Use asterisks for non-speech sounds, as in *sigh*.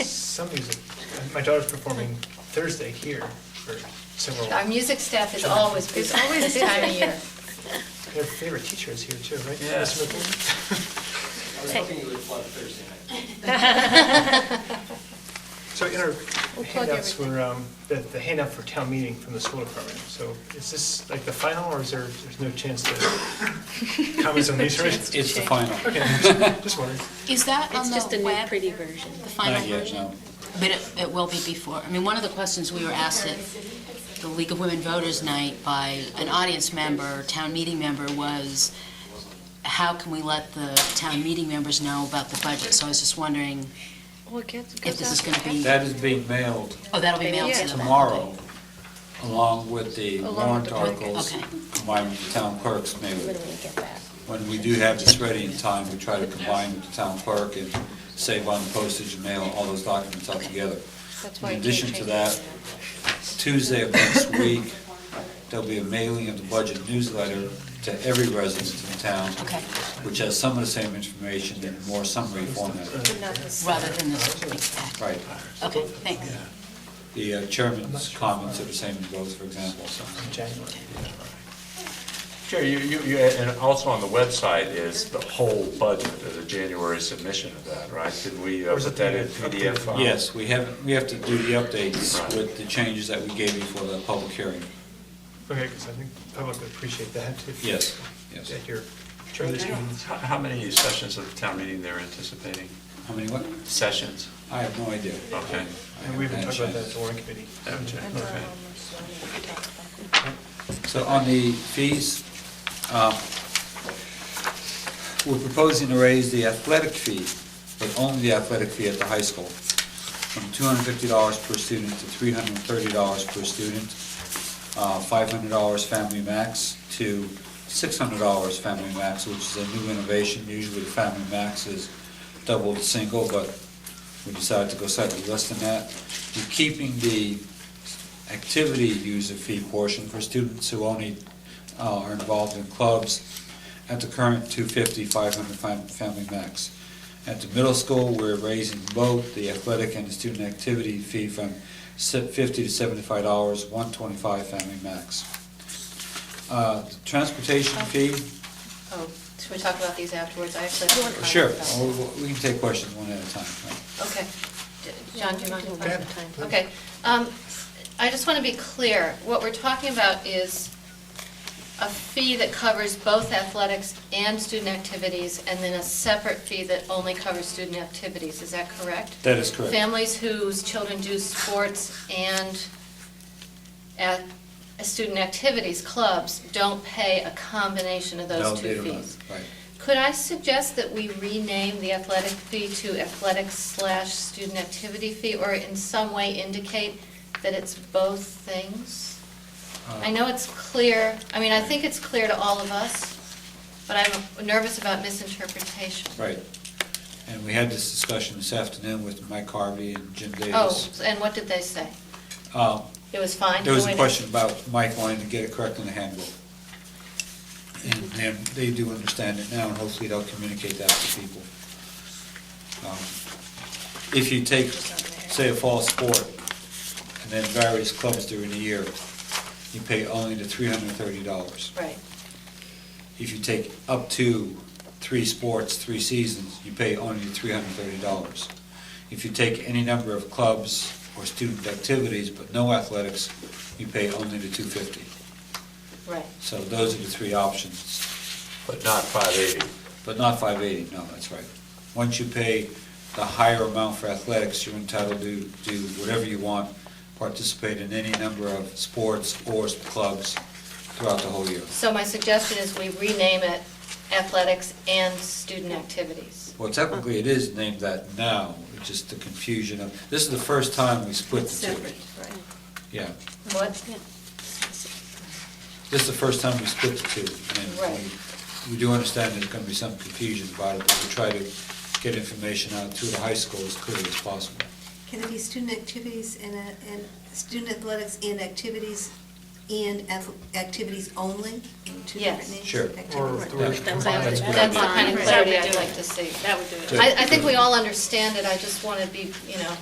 Some music, my daughter's performing Thursday here for several, Our her music staff is always busy It's always this time of busy. year. favorite teacher is here too, right? Yeah. Mr. McCool? I was hoping you would flood Thursday night. *laughs* So in our We'll plug handouts everything. were, um, the the handout for town meeting from the school department. So is this like the final or is there, there's no chance *laughs* to comments on these? right? It's the final. *laughs* Okay, just wondering. Is that on It's just a the new web, pretty version. the final Not yet, version? no. But it, it will be before, I mean, one of the questions we were asked at the League of Women Voters Night by an audience member, town meeting member, was how can we let the town meeting members know about the budget? So I was just wondering Well, it gets- if this is gonna be, That is being mailed oh, that'll be mailed to them. tomorrow, along with the Along with warrant the articles Okay. combined with the town clerk's mail. Literally get that. When we do have this ready in time, we try to combine with the town clerk and save on postage and mail all those documents all together. That's In why. I can't addition to change that, it. Tuesday of next week, there'll be a mailing of the budget newsletter to every resident in town, Okay. which has some of the same information in more summary format. But not this. Rather than this big pack. uh, Right. Okay, thanks. The uh, chairman's comments are the same in both, for example, so. January. Jerry, you, you, you- and also on the website is the whole budget as a January submission of that, right? Did we uh, Or is it put that in PDF file? Yes, we have, we have to do the updates with the changes that we gave you for the public hearing. Okay, because I think public would appreciate that if. Yes, yes. At your, How, during these meetings. how many sessions of the town meeting they're anticipating? How many, what? Sessions? I have no idea. I Okay. And we haven't talked haven't had about that at a chance. the warrant committee. Haven't you? And, Okay. um, so we can talk about it. So on the fees, um, we're proposing to raise the athletic fee, but only the athletic fee at the high school, from $250 per student to $330 per student, uh, $500 family max to $600 family max, which is a new innovation. Usually the family max is double the single, but we decided to go slightly less than that. We're keeping the activity user fee portion for students who only uh, are involved in clubs at the current 250, 500 fam- family max. At the middle school, we're raising both the athletic and the student activity fee from se- 50 to 75 dollars, 125 family max. Uh, Transportation fee, Oh, should we talk about these afterwards? I actually. have some comments sure, about- we- we we can take questions one at a time. right? Okay. D- John, do you mind? if I- Go ahead, please. Okay. Um, I just want to be clear. What we're talking about is a fee that covers both athletics and student activities, and then a separate fee that only covers student activities. Is that correct? That is correct. Families whose children do sports and at student activities, clubs, don't pay a combination of No, those they two don't. fees. Right. Could I suggest that we rename the athletic fee to athletic slash student activity fee, or in some way indicate that it's both things? Uh, I know it's clear, I mean, I think it's clear to all of us, but I'm nervous about misinterpretation. Right. And we had this discussion this afternoon with Mike Harvey and Jim Oh, Davis. and what did they say? Um, It was fine? There was a Wait. question about Mike wanting to get it correct in the handbook. And then they do understand it now, and hopefully they'll communicate that to people. Um, If you take, say, a fall sport, and then various clubs during the year, you pay only the three hundred and thirty dollars. Right, If you take up to three sports, three seasons, you pay only three hundred and thirty dollars. If you take any number of clubs or student activities, but no athletics, you pay only the two fifty. right. So those are the three options, But not 580. but not five eighty, no, that's right. Once you pay the higher amount for athletics, you're entitled to do whatever you want, participate in any number of sports or clubs throughout the whole year. So my suggestion is we rename it athletics and student activities. Well, technically, it is named that now, it's just the confusion of, this is the first time we split the two. Separate, right. Yeah, What? this is the first time we split the two. and we- Right. We do understand there's going to be some confusion about it, but we try to get information out to the high school as clearly as possible. Can it be student activities and, a- and student athletics and activities and ath- activities only? in two different Yes. names? Sure. Activities. Or Right. the way- That was That's a good That's the idea. kind of Right. clarity That would I'd do like it. to see. That would do it. I, I think we all understand it, I just want to be, you know,